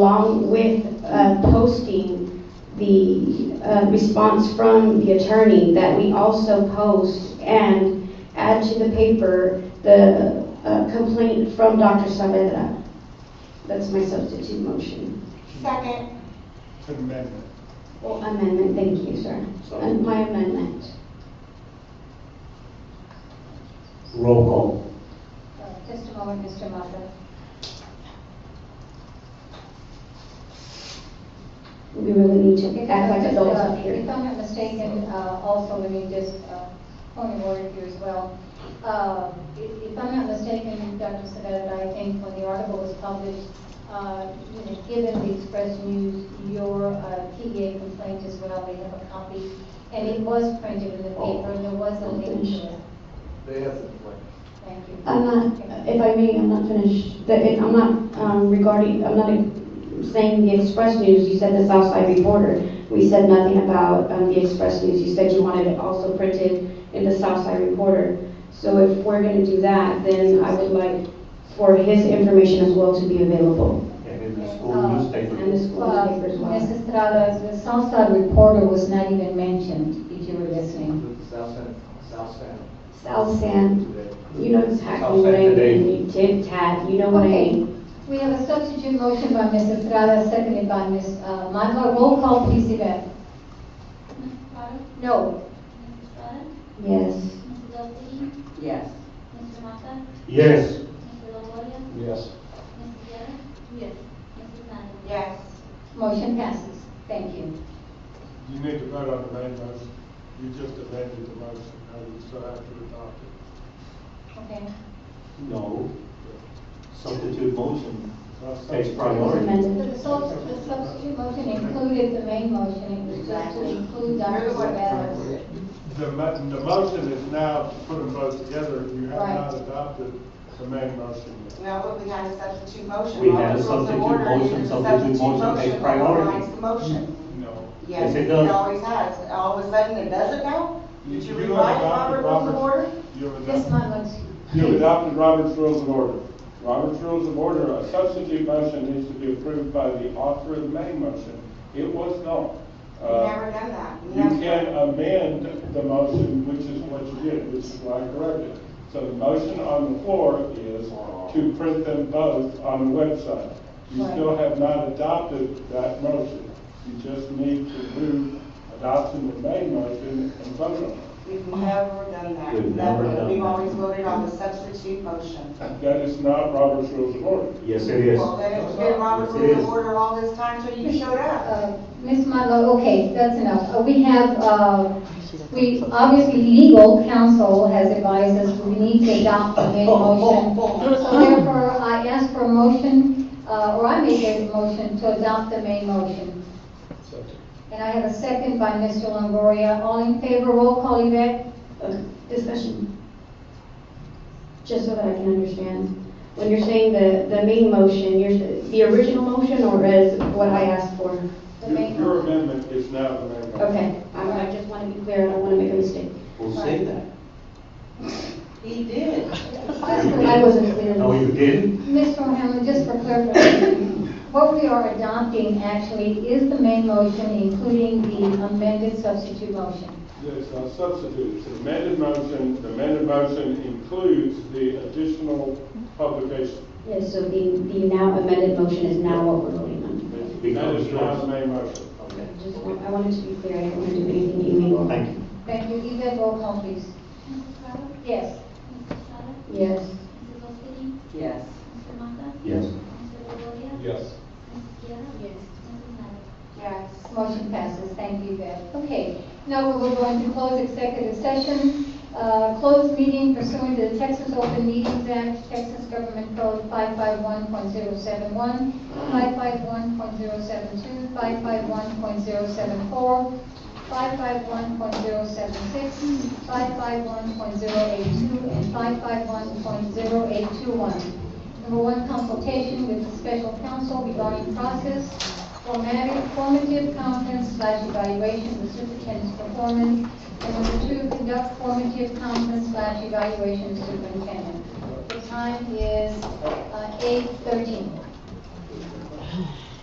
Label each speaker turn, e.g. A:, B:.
A: along with uh, posting the uh, response from the attorney that we also post and add to the paper the uh, complaint from Dr. Saavedra. That's my substitute motion.
B: Second.
C: It's an amendment.
A: Well, amendment, thank you, sir. And My amendment.
D: Roll call.
B: Uh, Just a moment, Mr. Mata.
A: We really need to
B: If
A: act like
B: I'm
A: adults
B: just, uh,
A: up here.
B: If I'm not mistaken, uh, also, let me just, uh, point of order here as well. Uh, If if I'm not mistaken, Dr. Savetta, I think when the article was published, uh, you know, given the Express News, your uh, PEA complaint as well, we have a copy, and it was printed in the paper, and there was a link to it.
E: They have the complaint.
B: Thank you.
A: I'm not, if I may, I'm not finished, The- it- I'm not um, regarding, I'm not saying the Express News, you said the Southside Reporter. We said nothing about um, the Express News, you said you wanted it also printed in the Southside Reporter. So if we're going to do that, then I would like for his information as well to be available
D: And in the school newspaper.
F: Um,
A: and the school
B: Well,
A: newspaper as well.
B: Mrs. Uh, Estrada, the Southside Reporter was not even mentioned, if you were listening.
E: With the South San, South San
A: South San,
E: today.
A: you know exactly what I
D: Southside today.
A: mean, tit tat, you know what I
B: Okay.
A: mean.
B: We have a substitute motion by Mrs. Estrada, seconded by Ms. uh, Madla. Roll call, please, Yvette.
G: Mrs. Potts,
B: No.
G: Mrs. Estrada,
A: Yes.
G: Mrs. Delphine,
H: Yes.
G: Mr. Mata,
D: Yes.
G: Mr. Longoria,
C: Yes.
G: Mrs. Guerra. Yes. Mrs. Nani.
H: Yes.
B: Motion passes. Thank you.
C: You need to vote on the main motion. You just amended the motion, now you still have to adopt it.
B: Okay.
D: No. Substitute motion
C: That's-
D: takes
A: Was
D: priority.
B: So
A: amended.
B: the sub- the substitute motion included the main motion, it was just to include Dr. Sabetta's.
C: The mo- the motion is now to put them both together, you have
B: Right.
C: not adopted the main motion yet.
F: No, but we had a substitute motion.
D: We
F: All
D: had a
F: the rules of
D: substitute
F: order is
D: motion.
F: a
D: Substitute
F: substitute
D: motion takes
F: motion
D: priority.
F: overrides the motion.
C: No.
F: Yes,
D: it
F: it
D: does.
F: always has. All of a sudden, it doesn't now? Did you
C: have
F: rewrite
C: adopted
F: Robert rules of
C: Robert's-
F: order?
C: You have
B: This
C: adopted,
B: one looks,
C: you have adopted Robert's Rules of Order. Robert's Rules of Order, a substitute motion needs to be approved by the author of the main motion. It was not.
F: We've
C: Uh,
F: never done that.
C: You
F: Never.
C: can
D: uh,
C: amend the motion, which is what you did, which is why I corrected. So the motion on the floor is to print them both on the website. You
B: Right.
C: still have not adopted that motion. You just need to move adoption of the main motion and vote on it.
F: We've never done that.
D: We've never done
F: We've
D: that.
F: always voted on the substitute motion.
C: That is not Robert's Rules of Order.
D: Yes, it is.
F: Well, then it's been Robert's
D: Yes, it
F: rules
D: is.
F: of order all this time till you showed up.
B: uh, Ms. Madla, okay, that's enough. Uh, We have, uh, we, obviously, legal counsel has advised us we need to adopt the main motion. So therefore, I ask for a motion, uh, or I make a motion to adopt the main motion. And I have a second by Mr. Longoria. All in favor, roll call, Yvette?
A: Okay, Discussion. Just so that I can understand, when you're saying the, the main motion, you're, the original motion or is what I asked for?
B: The
C: Your-
B: main-
C: Your amendment is now the main motion.
A: Okay, I, I just want to be clear, I don't want to make a mistake.
D: We'll say that.
F: He did.
B: Just for-
A: I wasn't clear.
D: No, Oh, you didn't.
B: Mr. O'Hanlon, just for clarification, what we are adopting actually is the main motion, including the amended substitute motion.
C: There's a substitute, it's an amended motion, the amended motion includes the additional publication.
A: Yes, so the, the now amended motion is now what we're voting on.
C: That is now the main motion.
D: Okay.
A: I Just, want- I wanted to be clear, I didn't want to do anything illegal.
D: Thank you.
B: Thank you. Yvette, roll call, please.
G: Mrs. Estrada,
B: Yes.
G: Mrs. Estrada,
A: Yes,
G: Mrs. Delphine,
H: Yes.
G: Mr. Mata,
D: Yes.
G: Mr. Longoria.
C: Yes.
G: Mrs. Guerra. Yes. Mrs. Nani.
F: Yes.
B: Motion passes. Thank you, Yvette. Okay, now we will go into closed executive session. Uh, Closed meeting pursuant to the Texas Open Meetings Act, Texas Government Code 551.071, 551.072, 551.074, 551.076, 551.082, and 551.0821. Number one, consultation with the special counsel regarding process, formative, formative conference slash evaluation of the superintendent's performance. And number two, conduct formative conference slash evaluation of uh, superintendent. The time is eight thirteen.